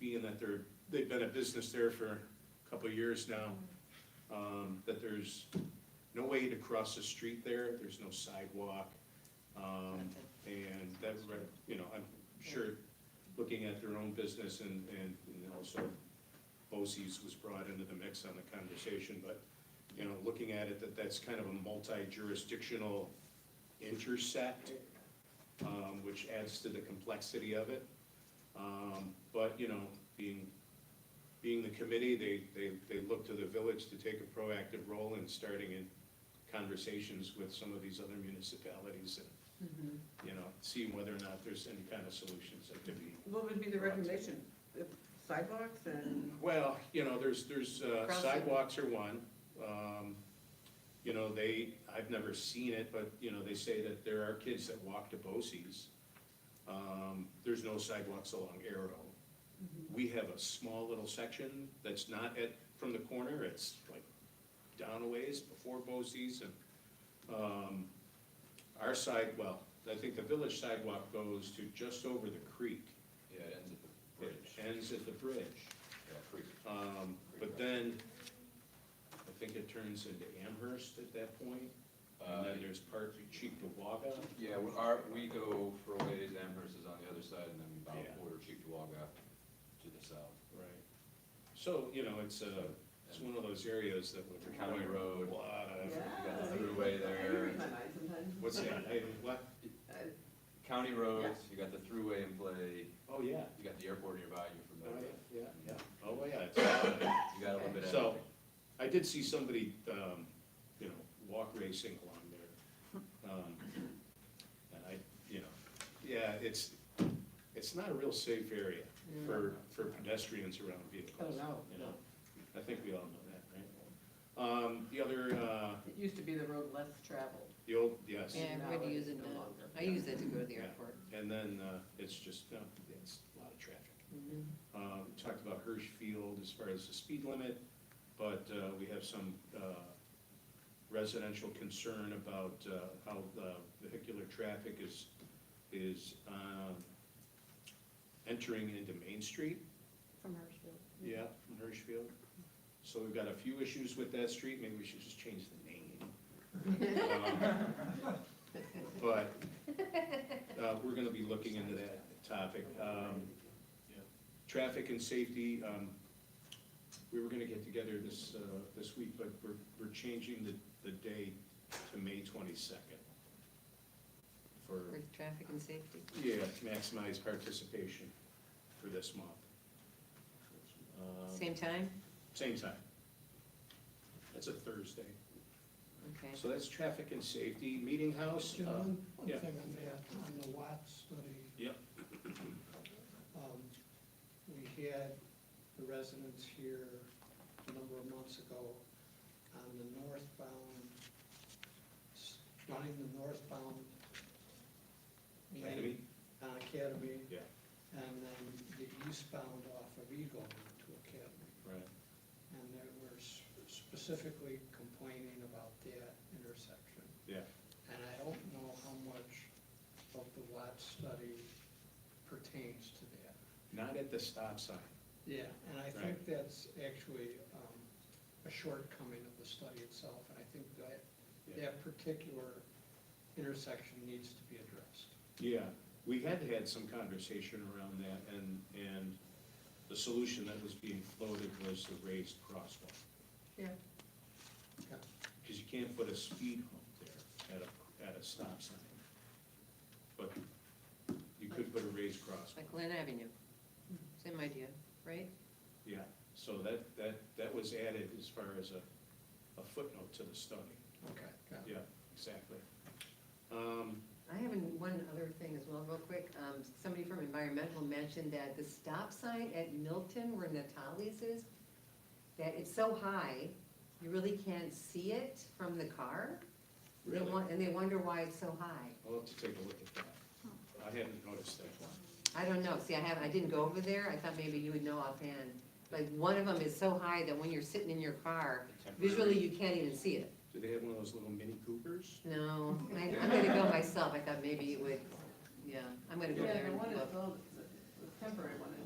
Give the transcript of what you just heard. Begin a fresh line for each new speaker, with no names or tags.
being that they're, they've been a business there for a couple of years now, um, that there's no way to cross the street there, there's no sidewalk. Um, and that's, right, you know, I'm sure, looking at their own business and, and and also BOSI's was brought into the mix on the conversation, but, you know, looking at it, that that's kind of a multi-jurisdictional intersect, um, which adds to the complexity of it. Um, but, you know, being, being the committee, they, they, they look to the village to take a proactive role in starting in conversations with some of these other municipalities and, you know, seeing whether or not there's any kind of solutions that could be.
What would be the recommendation? The Sidewalks and,
Well, you know, there's, there's uh,
Crossing.
sidewalks are one. Um, You know, they, I've never seen it, but, you know, they say that there are kids that walk to Bose's. Um, There's no sidewalks along Arrow. We have a small little section that's not at, from the corner, it's like down a ways before Bose's and um, our side, well, I think the village sidewalk goes to just over the creek.
Yeah, it ends at the
It
bridge.
ends at the bridge.
Yeah, creek.
Um, but then, I think it turns into Amherst at that point, and
Uh,
then there's part Cheektowaga.
Yeah, we- our, we go for a ways, Amherst is on the other side, and then we bow
Yeah.
quarter Cheektowaga to the south.
Right. So, you know, it's a, it's one of those areas that would.
It's a county road.
A lot
yeah.
of,
we got the thruway
I
there.
read my mind sometimes.
what's that, hey, what,
Uh,
County roads, you got the throughway in play,
oh, yeah,
you got the airport nearby, you're
oh,
familiar.
yeah, yeah, yeah, oh, yeah. it's a lot of-
You got a little bit of
So-
everything.
I did see somebody, um, you know, walk racing along there. Um, And I, you know, yeah, it's, it's not a real safe area for, for pedestrians around
Oh,
vehicles.
no,
You
no.
know, I think we all know that, right? Um, the other, uh,
It used to be the road less traveled.
the old, yes,
Yeah, everybody uses it
No
now.
longer.
I use it to go to the
Yeah.
airport.
and then, uh, it's just, no, it's a lot of traffic. Um, Talked about Hirsch Field as far as the speed limit, but uh, we have some uh, residential concern about uh, how the vehicular traffic is, is um, entering into Main Street.
From Marshfield.
Yeah. From Hirsch Field. So we've got a few issues with that street, maybe we should just change the name. Um, But uh, we're gonna be looking into that topic. Um, Traffic and safety, um, we were gonna get together this, uh, this week, but we're, we're changing the, the day to May twenty-second. For,
For traffic and safety.
yeah, to maximize participation for this month. Um,
Same time?
Same time. That's a Thursday.
Okay.
So that's traffic and safety, meeting house. uh,
John, one
yeah.
thing on that, on the Watt study,
Yep,
um, we had the residents here a number of months ago on the northbound, s- running the northbound lane
Academy?
on Academy,
yeah,
and then the eastbound off of Eagle onto Academy.
right.
And they were s- specifically complaining about that intersection.
Yeah,
And I don't know how much of the Watt study pertains to that.
not at the stop sign.
Yeah. And I think
Right.
that's actually um, a shortcoming of the study itself, and I think that,
Yeah.
that particular intersection needs to be addressed.
Yeah, we had had some conversation around that, and, and the solution that was being floated was the raised crosswalk.
Yeah.
Yeah.
Because you can't put a speed hump there at a, at a stop sign. But you could put a raised crosswalk.
Like Lynn Avenue. Same idea, right?
Yeah, so that, that, that was added as far as a, a footnote to the study.
Okay. got it.
Yeah, exactly. Um,
I have an- one other thing as well, real quick. Um, somebody from environmental mentioned that the stop sign at Milton where Natalie's is, that it's so high, you really can't see it from the car. They
Really?
won- And they wonder why it's so high.
I'll have to take a look at that. I hadn't noticed that one.
I don't know, see, I haven't, I didn't go over there, I thought maybe you would know offhand. Like, one of them is so high that when you're sitting in your car, visually you can't even see it.
Do they have one of those little mini Coopers?
No, I, I'm gonna go myself, I thought maybe it would, yeah, I'm gonna go
Yeah,
there
the
and
one is,
look.
the the temporary one is